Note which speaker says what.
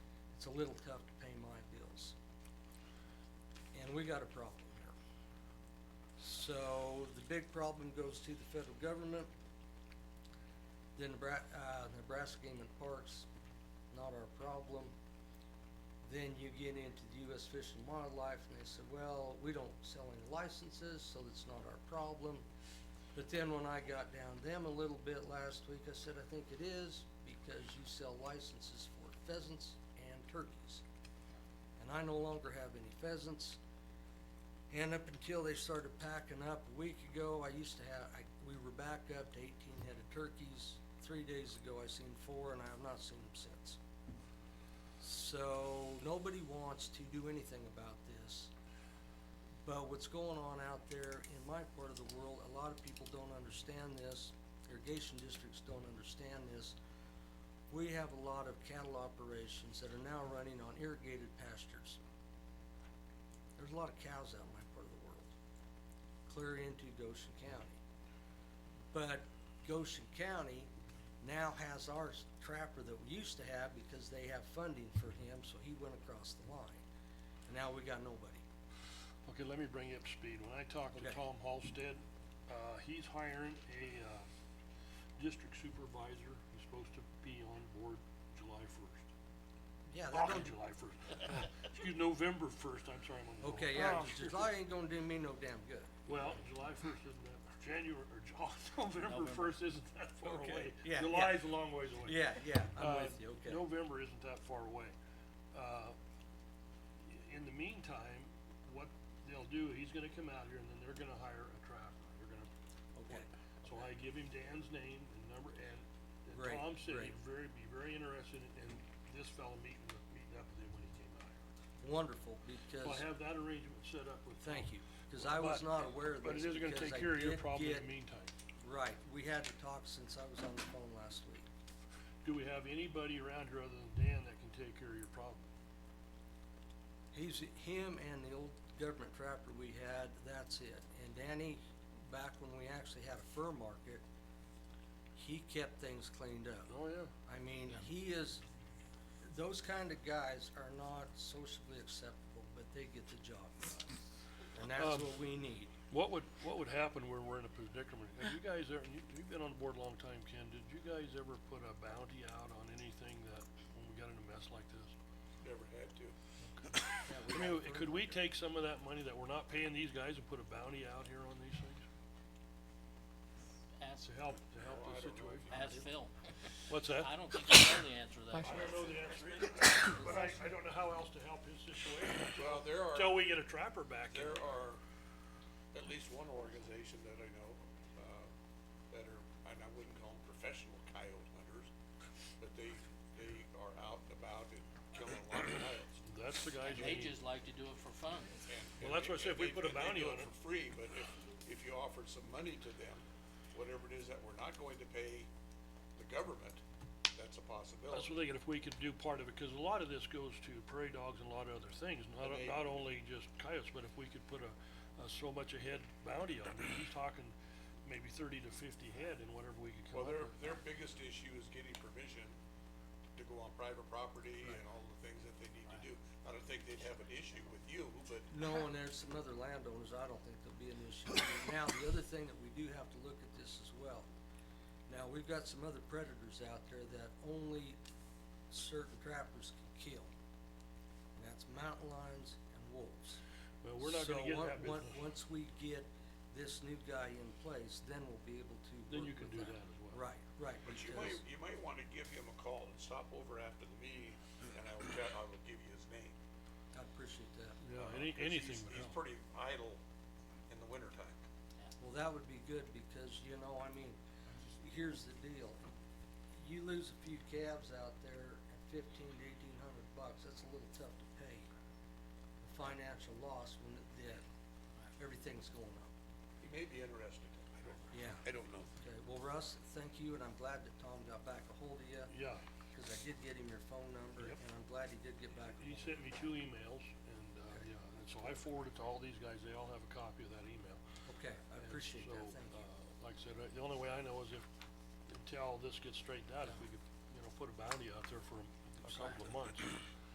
Speaker 1: it's a little tough to pay my bills. And we got a problem here. So the big problem goes to the federal government. Then Nebra- uh, Nebraska Game and Parks, not our problem. Then you get into the US Fish and Wildlife and they said, well, we don't sell any licenses, so it's not our problem. But then when I got down them a little bit last week, I said, I think it is because you sell licenses for pheasants and turkeys. And I no longer have any pheasants. And up until they started packing up a week ago, I used to have, I, we were back up to eighteen head of turkeys. Three days ago, I seen four and I have not seen them since. So nobody wants to do anything about this. But what's going on out there in my part of the world, a lot of people don't understand this, irrigation districts don't understand this. We have a lot of cattle operations that are now running on irrigated pastures. There's a lot of cows out in my part of the world, clear into Goshen County. But Goshen County now has our s- trapper that we used to have because they have funding for him, so he went across the line. And now we got nobody.
Speaker 2: Okay, let me bring you up to speed. When I talked to
Speaker 1: Okay.
Speaker 2: Tom Halstead, uh, he's hiring a, uh, district supervisor who's supposed to be on board July first.
Speaker 1: Yeah, that don't,
Speaker 2: Not July first, excuse, November first, I'm sorry, I'm on the. wrong-
Speaker 1: Okay, yeah,
Speaker 2: Oh,
Speaker 1: 'cause July ain't gonna do me no damn good.
Speaker 2: Well, July first isn't that, January, or Ju- November
Speaker 3: November.
Speaker 2: first isn't that far
Speaker 1: Okay,
Speaker 2: away.
Speaker 1: yeah, yeah.
Speaker 2: July's a long ways away.
Speaker 1: Yeah, yeah, I'm
Speaker 2: Uh,
Speaker 1: with you, okay.
Speaker 2: November isn't that far away. Uh, In the meantime, what they'll do, he's gonna come out here and then they're gonna hire a trapper, they're gonna.
Speaker 1: Okay.
Speaker 2: So I give him Dan's name and number and, and
Speaker 1: Great,
Speaker 2: Tom said
Speaker 1: great.
Speaker 2: he'd very, be very interested in this fellow meeting, with- meeting up with him when he came out here.
Speaker 1: Wonderful,
Speaker 2: So I
Speaker 1: because,
Speaker 2: have that arrangement set up with. Tom.
Speaker 1: thank you, because I was
Speaker 2: But-
Speaker 1: not aware of
Speaker 2: But
Speaker 1: this
Speaker 2: it is gonna
Speaker 1: because
Speaker 2: take
Speaker 1: I
Speaker 2: care of your
Speaker 1: did
Speaker 2: problem in
Speaker 1: get,
Speaker 2: the meantime.
Speaker 1: right, we had to talk since I was on the phone last week.
Speaker 2: Do we have anybody around here other than Dan that can take care of your problem?
Speaker 1: He's, him and the old government trapper we had, that's it. And Danny, back when we actually had a fur market, he kept things cleaned up.
Speaker 2: Oh, yeah.
Speaker 1: I mean, he is, those kind of guys are not socially acceptable, but they get the job done. And that's
Speaker 2: Um,
Speaker 1: what we need.
Speaker 2: What would, what would happen where we're in a predicament? Have you guys ever, you, you've been on the board a long time, Ken, did you guys ever put a bounty out on anything that, when we got in a mess like this?
Speaker 4: Never had to.
Speaker 1: Yeah,
Speaker 2: I
Speaker 1: we
Speaker 2: mean,
Speaker 1: got
Speaker 2: could
Speaker 1: fur-
Speaker 2: we take some of that money that we're not paying these guys and put a bounty out here on these things?
Speaker 3: Ask,
Speaker 2: To help, to help
Speaker 4: No,
Speaker 2: the
Speaker 4: I don't know if
Speaker 2: situation?
Speaker 3: ask Phil.
Speaker 2: What's that?
Speaker 3: I don't think I know the answer to that.
Speaker 2: I don't know the answer either, but I, I don't know how else to help his situation,
Speaker 4: Well, there are,
Speaker 2: until we get a trapper back in.
Speaker 4: there are at least one organization that I know, uh, that are, and I wouldn't call them professional coyote hunters, but they, they are out and about and killing a lot of coyotes.
Speaker 2: That's the guys
Speaker 3: And
Speaker 2: we
Speaker 3: They
Speaker 2: need.
Speaker 3: just like to do it for fun.
Speaker 4: And-
Speaker 2: Well,
Speaker 4: and
Speaker 2: that's
Speaker 4: they-
Speaker 2: why I said if
Speaker 4: and
Speaker 2: we
Speaker 4: they-
Speaker 2: put a
Speaker 4: and they
Speaker 2: bounty
Speaker 4: do
Speaker 2: on
Speaker 4: it
Speaker 2: it.
Speaker 4: For free, but if, if you offered some money to them, whatever it is that we're not going to pay the government, that's a
Speaker 2: That's
Speaker 4: possibility.
Speaker 2: what I'm thinking, if we could do part of it, cause a lot of this goes to prairie dogs and a lot of other things, not,
Speaker 4: And they-
Speaker 2: not only just coyotes, but if we could put a, a so much a head bounty on it, he's talking maybe thirty to fifty head and whatever we could
Speaker 4: Well,
Speaker 2: come up
Speaker 4: their,
Speaker 2: with.
Speaker 4: their biggest issue is getting permission to go on private property and all the things that they need to do. I don't think they'd have an issue with you, but
Speaker 1: No, and there's some other landowners, I don't think there'll be an issue. Now, the other thing that we do have to look at this as well. Now, we've got some other predators out there that only certain trappers can kill. And that's mountain lions and wolves.
Speaker 2: Well, we're not gonna
Speaker 1: So
Speaker 2: get
Speaker 1: on-
Speaker 2: that
Speaker 1: on-
Speaker 2: business,
Speaker 1: Once we get this new guy in place, then we'll be able to
Speaker 2: Then
Speaker 1: work
Speaker 2: you can
Speaker 1: with
Speaker 2: do that as well.
Speaker 1: Right, right,
Speaker 4: But you might,
Speaker 1: because,
Speaker 4: you might wanna give him a call and stop over after the meeting, and I will tell, I will give you his name.
Speaker 1: I appreciate that.
Speaker 2: yeah, any,
Speaker 4: 'Cause
Speaker 2: anything
Speaker 4: he's-
Speaker 2: would
Speaker 4: He's
Speaker 2: help.
Speaker 4: pretty idle in the wintertime.
Speaker 1: Well, that would be good because, you know, I mean, here's the deal. You lose a few calves out there at fifteen to eighteen hundred bucks, that's a little tough to pay. The Financial loss when it did, everything's going up.
Speaker 4: He may be interested, I don't,
Speaker 1: Yeah.
Speaker 4: I don't know.
Speaker 1: Okay, well, Russ, thank you and I'm glad that Tom got back a hold of you,
Speaker 2: Yeah,
Speaker 1: cause I did get him your phone number
Speaker 2: Yep.
Speaker 1: and I'm glad he did get back. a
Speaker 2: he
Speaker 1: hold of
Speaker 2: sent me two emails and, uh, yeah, and so I forwarded to all these guys, they all have a copy of that email.
Speaker 1: you. Okay, I
Speaker 2: And
Speaker 1: appreciate
Speaker 2: so,
Speaker 1: that, thank you.
Speaker 2: uh, Like I said, uh, the only way I know is if, until this gets straightened out, if we could, you know, put a bounty out there for a couple of months.